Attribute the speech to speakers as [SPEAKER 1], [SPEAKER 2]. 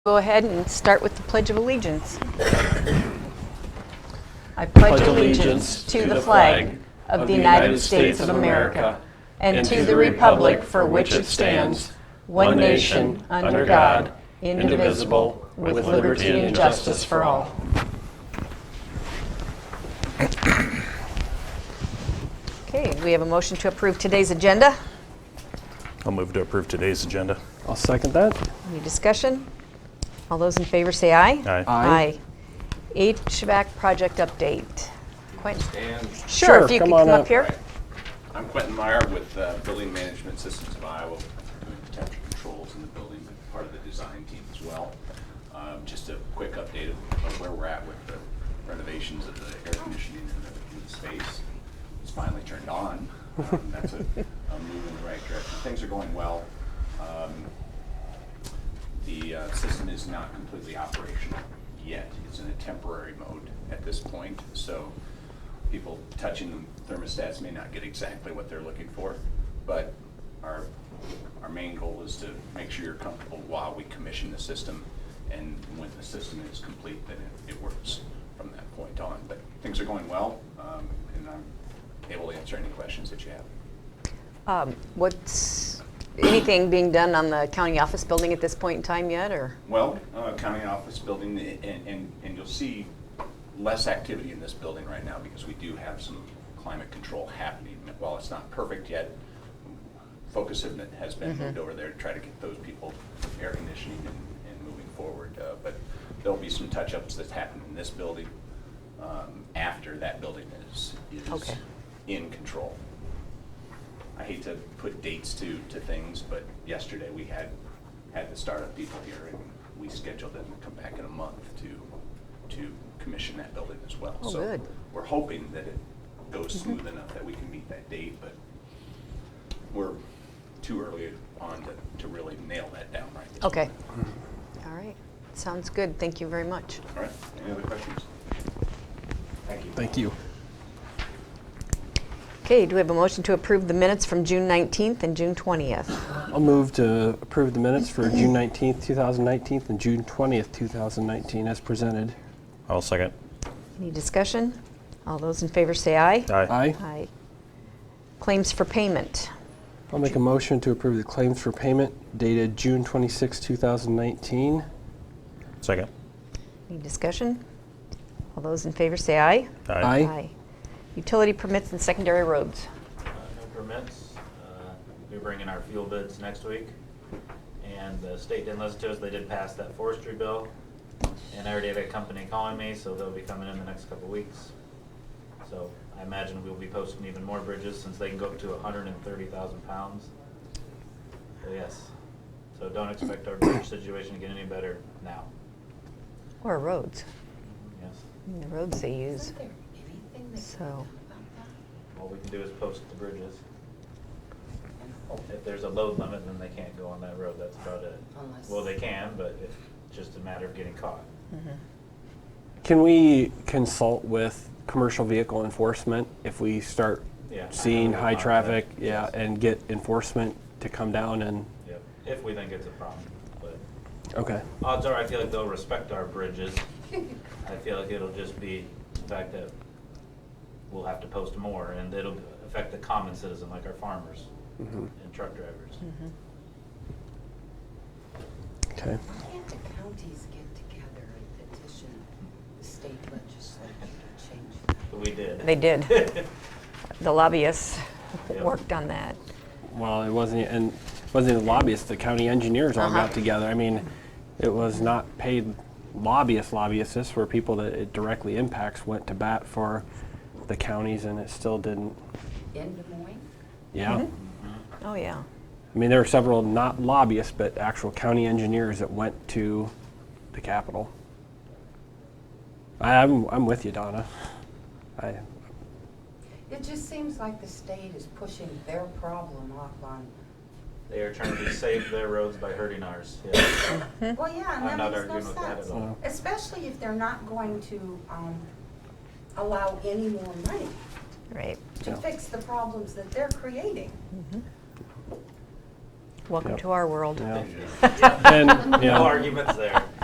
[SPEAKER 1] Go ahead and start with the Pledge of Allegiance. I pledge allegiance to the flag of the United States of America and to the republic for which it stands, one nation, under God, indivisible, with liberty and justice for all. Okay, we have a motion to approve today's agenda.
[SPEAKER 2] I'll move to approve today's agenda.
[SPEAKER 3] I'll second that.
[SPEAKER 1] Any discussion? All those in favor say aye.
[SPEAKER 2] Aye.
[SPEAKER 1] Aye.
[SPEAKER 3] Aye.
[SPEAKER 1] HVAC project update. Quentin?
[SPEAKER 4] And
[SPEAKER 1] Sure,
[SPEAKER 3] Sure,
[SPEAKER 1] if you could
[SPEAKER 3] come
[SPEAKER 1] come
[SPEAKER 3] on
[SPEAKER 1] up
[SPEAKER 3] up.
[SPEAKER 1] here.
[SPEAKER 4] I'm Quentin Meyer with uh, Building Management Systems of Iowa, doing temperature controls in the building, but part of the design team as well. Um, Just a quick update of of where we're at with the renovations of the air conditioning in the- in the space. It's finally turned on. Um, That's a a move in the right direction. Things are going well. Um, The uh, system is not completely operational yet. It's in a temporary mode at this point, so people touching the thermostats may not get exactly what they're looking for, but our, our main goal is to make sure you're comfortable while we commission the system, and when the system is complete, then it, it works from that point on. But things are going well, um, and I'm able to answer any questions that you have.
[SPEAKER 1] Um, What's, anything being done on the county office building at this point in time yet, or?
[SPEAKER 4] Well, uh, county office building, a- and, and, and you'll see less activity in this building right now because we do have some climate control happening. While it's not perfect yet, focus has been- has been moved over there to try to get those people air conditioning and, and moving forward. Uh, But there'll be some touch-ups that happen in this building um, after that building is, is
[SPEAKER 1] Okay.
[SPEAKER 4] in control. I hate to put dates to, to things, but yesterday we had, had the startup people here and we scheduled them to come back in a month to, to commission that building as well.
[SPEAKER 1] Oh,
[SPEAKER 4] So
[SPEAKER 1] good. Mm-hmm.
[SPEAKER 4] We're hoping that it goes smooth enough that we can meet that date, but we're too early on to, to really nail that down right this
[SPEAKER 1] Okay.
[SPEAKER 4] moment.
[SPEAKER 1] All right, sounds good, thank you very much.
[SPEAKER 4] All right, any other questions? Thank you.
[SPEAKER 3] Thank you.
[SPEAKER 1] Okay, do we have a motion to approve the minutes from June 19th and June 20th?
[SPEAKER 3] I'll move to approve the minutes for June 19th, 2019, and June 20th, 2019, as presented.
[SPEAKER 2] I'll second.
[SPEAKER 1] Any discussion? All those in favor say aye.
[SPEAKER 2] Aye.
[SPEAKER 3] Aye.
[SPEAKER 1] Aye. Claims for payment.
[SPEAKER 3] I'll make a motion to approve the claims for payment dated June 26, 2019.
[SPEAKER 2] Second.
[SPEAKER 1] Any discussion? All those in favor say aye.
[SPEAKER 3] Aye.
[SPEAKER 1] Utility permits and secondary roads.
[SPEAKER 5] Uh, No permits. Uh, We bring in our fuel bids next week. And the state didn't listen to us. They did pass that forestry bill. And I already had a company calling me, so they'll be coming in the next couple weeks. So I imagine we'll be posting even more bridges since they can go up to hundred and thirty thousand pounds. So yes. So don't expect our bridge situation to get any better now.
[SPEAKER 1] Or roads.
[SPEAKER 5] Yes.
[SPEAKER 1] I mean, The roads they use.
[SPEAKER 6] Is there anything that
[SPEAKER 1] So,
[SPEAKER 5] All we can do is post the bridges. If there's a load limit, then they can't go on that road, that's about it.
[SPEAKER 6] Unless-
[SPEAKER 5] Well, they can, but it's just a matter of getting caught.
[SPEAKER 1] Mm-hmm.
[SPEAKER 3] Can we consult with commercial vehicle enforcement if we start
[SPEAKER 5] Yeah.
[SPEAKER 3] seeing high traffic? Yeah,
[SPEAKER 5] Yes.
[SPEAKER 3] and get enforcement to come down and,
[SPEAKER 5] Yep, if we think it's a problem, but
[SPEAKER 3] okay.
[SPEAKER 5] odds are, I feel like they'll respect our bridges. I feel like it'll just be the fact that we'll have to post more, and it'll affect the common citizen, like our farmers
[SPEAKER 3] Mm-hmm.
[SPEAKER 5] and truck drivers.
[SPEAKER 3] Okay.
[SPEAKER 6] Can't the counties get together and petition the state legislature to change that?
[SPEAKER 5] But we did.
[SPEAKER 1] They did. the lobbyists
[SPEAKER 5] Yep.
[SPEAKER 1] worked on that.
[SPEAKER 3] Well, it wasn't, and it wasn't the lobbyists. The county engineers all
[SPEAKER 1] Uh-huh.
[SPEAKER 3] got together. I mean, it was not paid lobbyists. Lobbyists this were people that it directly impacts went to bat for the counties, and it still didn't.
[SPEAKER 6] In Des Moines?
[SPEAKER 3] Yeah,
[SPEAKER 1] Oh, yeah.
[SPEAKER 3] I mean there were several not lobbyists, but actual county engineers that went to the Capitol. I, I'm I'm with you, Donna. I
[SPEAKER 6] It just seems like the state is pushing their problem off on,
[SPEAKER 5] They are trying to save their roads by hurting ours, yes.
[SPEAKER 6] well, yeah,
[SPEAKER 5] I'm
[SPEAKER 6] and that
[SPEAKER 5] not
[SPEAKER 6] makes no
[SPEAKER 5] arguing with that
[SPEAKER 6] sense.
[SPEAKER 5] at all.
[SPEAKER 6] Especially if they're not going to, um, allow any more money
[SPEAKER 1] Right.
[SPEAKER 6] to
[SPEAKER 3] Yeah.
[SPEAKER 6] fix the problems that they're creating.
[SPEAKER 1] Welcome
[SPEAKER 3] Yep.
[SPEAKER 1] to our world.
[SPEAKER 3] yeah.
[SPEAKER 5] Yeah.
[SPEAKER 3] and
[SPEAKER 5] No
[SPEAKER 3] yeah,
[SPEAKER 5] arguments there.